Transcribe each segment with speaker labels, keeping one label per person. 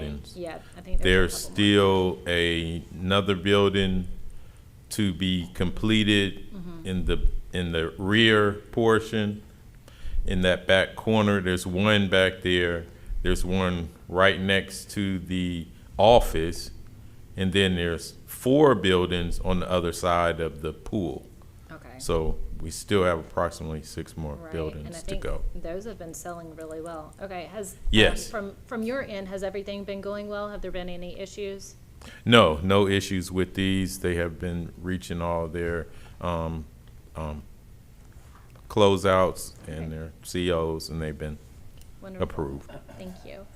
Speaker 1: buildings.
Speaker 2: Yeah, I think
Speaker 1: There's
Speaker 2: a couple more.
Speaker 1: still a- another building to be completed
Speaker 2: Mm-hmm.
Speaker 1: in the, in the rear portion. In that back corner, there's one back there. There's one right next to the office. And then there's four buildings on the other side of the pool.
Speaker 2: Okay.
Speaker 1: So we still have approximately six more
Speaker 2: Right, and I
Speaker 1: buildings to
Speaker 2: think
Speaker 1: go.
Speaker 2: Those have been selling really well. Okay, has. um,
Speaker 1: Yes.
Speaker 2: From, from your end, has everything been going well? Have there been any issues?
Speaker 1: No, no issues with these. They have been reaching all their um, um, closeouts and their COs, and they've been
Speaker 2: Wonderful.
Speaker 1: approved.
Speaker 2: Thank you.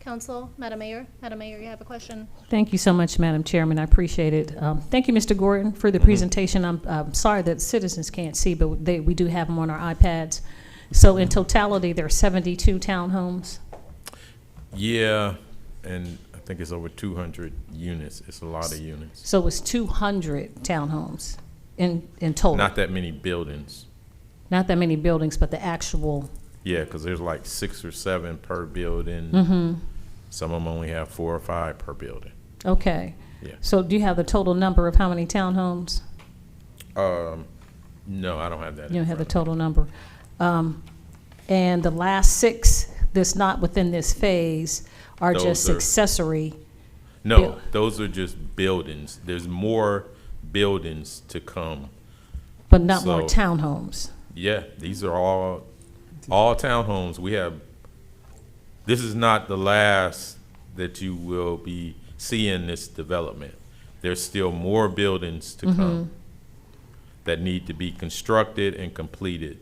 Speaker 2: Council, Madam Mayor, Madam Mayor, you have a question?
Speaker 3: Thank you so much, Madam Chairman. I appreciate it. Um, Thank you, Mr. Gordon, for the
Speaker 1: Mm-hmm.
Speaker 3: presentation. I'm I'm sorry that citizens can't see, but they, we do have them on our iPads. So
Speaker 1: Mm-hmm.
Speaker 3: in totality, there are 72 townhomes.
Speaker 1: Yeah, and I think it's over 200 units. It's a lot of units.
Speaker 3: So it's 200 townhomes in, in total.
Speaker 1: Not that many buildings.
Speaker 3: Not that many buildings, but the actual,
Speaker 1: Yeah, because there's like six or seven per building.
Speaker 3: Mm-hmm.
Speaker 1: Some of them only have four or five per building.
Speaker 3: okay.
Speaker 1: Yeah.
Speaker 3: So do you have the total number of how many townhomes?
Speaker 1: Um, no, I don't have that.
Speaker 3: You don't
Speaker 1: in
Speaker 3: have the
Speaker 1: front of
Speaker 3: total number. Um, And the last six that's not within this phase are
Speaker 1: Those
Speaker 3: just
Speaker 1: are-
Speaker 3: accessory.
Speaker 1: me. No,
Speaker 3: Bill-
Speaker 1: those are just buildings. There's more buildings to come.
Speaker 3: But not more
Speaker 1: So-
Speaker 3: townhomes.
Speaker 1: Yeah, these are all, all townhomes. We have, this is not the last that you will be seeing this development. There's still more buildings to come that need to be constructed and completed.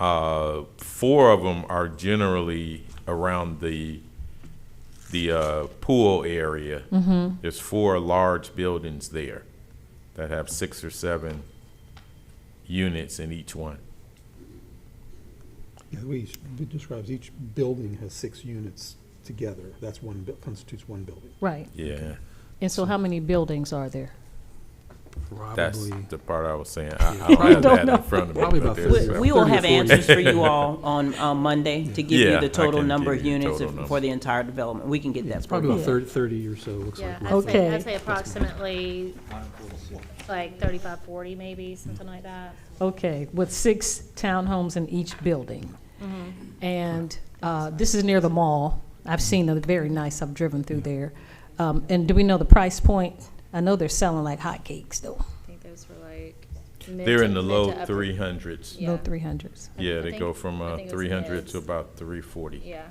Speaker 1: Uh, Four of them are generally around the, the uh, pool area. There's four large buildings there that have six or seven units in each one.
Speaker 4: Yeah, the way each- it describes, each building has six units together. That's one, bu- constitutes one building.
Speaker 3: Right.
Speaker 1: Yeah,
Speaker 3: And so how many buildings are there?
Speaker 1: that's
Speaker 4: Probably,
Speaker 1: the part I was saying. I, I don't have
Speaker 3: don't
Speaker 1: that
Speaker 3: know.
Speaker 1: in front of me.
Speaker 4: Probably
Speaker 1: but
Speaker 4: about
Speaker 1: there's
Speaker 4: fifty.
Speaker 1: several.
Speaker 5: We we will have
Speaker 4: 30 or 40.
Speaker 5: answers for you all on, on Monday to give
Speaker 1: Yeah,
Speaker 5: you
Speaker 1: I
Speaker 5: the total
Speaker 1: can
Speaker 5: number
Speaker 1: give
Speaker 5: of
Speaker 1: you the
Speaker 5: units
Speaker 1: total
Speaker 5: for the entire development. We can get that.
Speaker 4: it's
Speaker 5: for
Speaker 4: probably
Speaker 5: you.
Speaker 4: about thirty, thirty or so, looks
Speaker 2: Yeah,
Speaker 4: like.
Speaker 2: I'd
Speaker 4: roughly.
Speaker 2: say,
Speaker 3: Okay.
Speaker 2: I'd say approximately like 35, 40 maybe, something like that.
Speaker 3: Okay, with six townhomes in each building. And uh, this is near the mall. I've seen them, very nice. I've driven through there. Um, And do we know the price point? I know they're selling like hotcakes though,
Speaker 2: I think those were like. mid
Speaker 1: They're
Speaker 2: to-
Speaker 1: in the
Speaker 2: mid
Speaker 1: low
Speaker 2: to upper-
Speaker 1: three hundreds.
Speaker 2: Yeah.
Speaker 3: low 300s.
Speaker 2: I
Speaker 1: Yeah, they
Speaker 2: think-
Speaker 1: go from
Speaker 2: I
Speaker 1: uh,
Speaker 2: think it was
Speaker 1: three hundred
Speaker 2: mids.
Speaker 1: to about three forty.
Speaker 2: Yeah,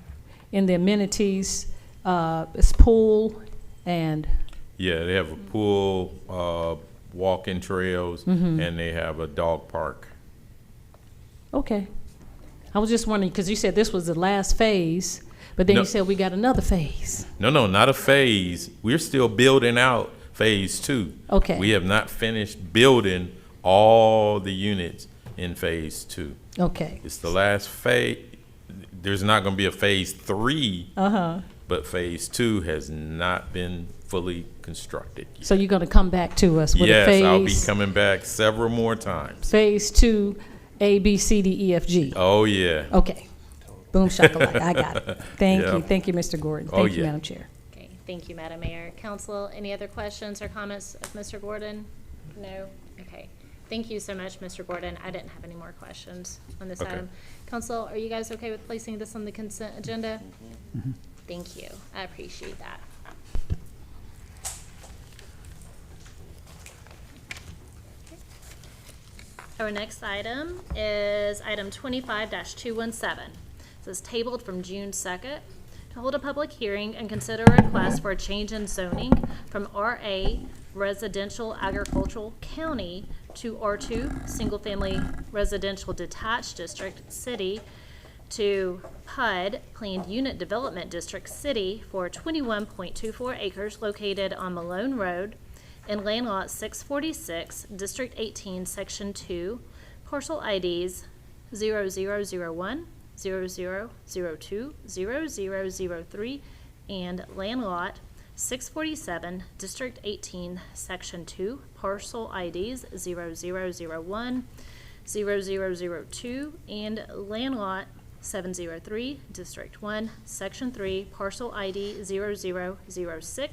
Speaker 3: And the amenities, uh, it's pool and,
Speaker 1: Yeah, they have a
Speaker 2: Mm-hmm.
Speaker 1: pool, uh, walking trails, and they have a dog park.
Speaker 3: okay. I was just wondering, because you said this was the last phase, but then
Speaker 1: No.
Speaker 3: you said we got another phase.
Speaker 1: No, no, not a phase. We're still building out phase two.
Speaker 3: Okay.
Speaker 1: We have not finished building all the units in phase two.
Speaker 3: Okay,
Speaker 1: It's the last phase. There's not going to be a phase three,
Speaker 3: uh-huh.
Speaker 1: but phase two has not been fully constructed. yet.
Speaker 3: So you're going to come back to us with a
Speaker 1: Yes, I'll be
Speaker 3: phase,
Speaker 1: coming back several more times.
Speaker 3: phase two, A, B, C, D, E, F, G?
Speaker 1: Oh, yeah.
Speaker 3: Okay. Boom shakalaka, I got it. Thank
Speaker 1: Yeah.
Speaker 3: you, thank you, Mr. Gordon.
Speaker 1: Oh,
Speaker 3: Thank you,
Speaker 1: yeah.
Speaker 3: Madam Chair.
Speaker 2: okay, thank you, Madam Mayor. Council, any other questions or comments of Mr. Gordon? No? Okay, thank you so much, Mr. Gordon. I didn't have any more questions on this
Speaker 1: Okay.
Speaker 2: item. Council, are you guys okay with placing this on the consent agenda? Thank you, I appreciate that. Our next item is item twenty-five two one seven. This is tabled from June second to hold a public hearing and consider a request for a change in zoning from RA Residential Agricultural County to R two Single Family Residential Detached District City to PUD Planned Unit Development District City for twenty-one point two four acres located on Malone Road in Land Lot 646, District 18, Section 2, parcel IDs 0001, 0002, 0003, and Land Lot 647, District 18, Section 2, parcel IDs 0001, 0002, and Land Lot 703, District 1, Section 3, Parcel ID 0006,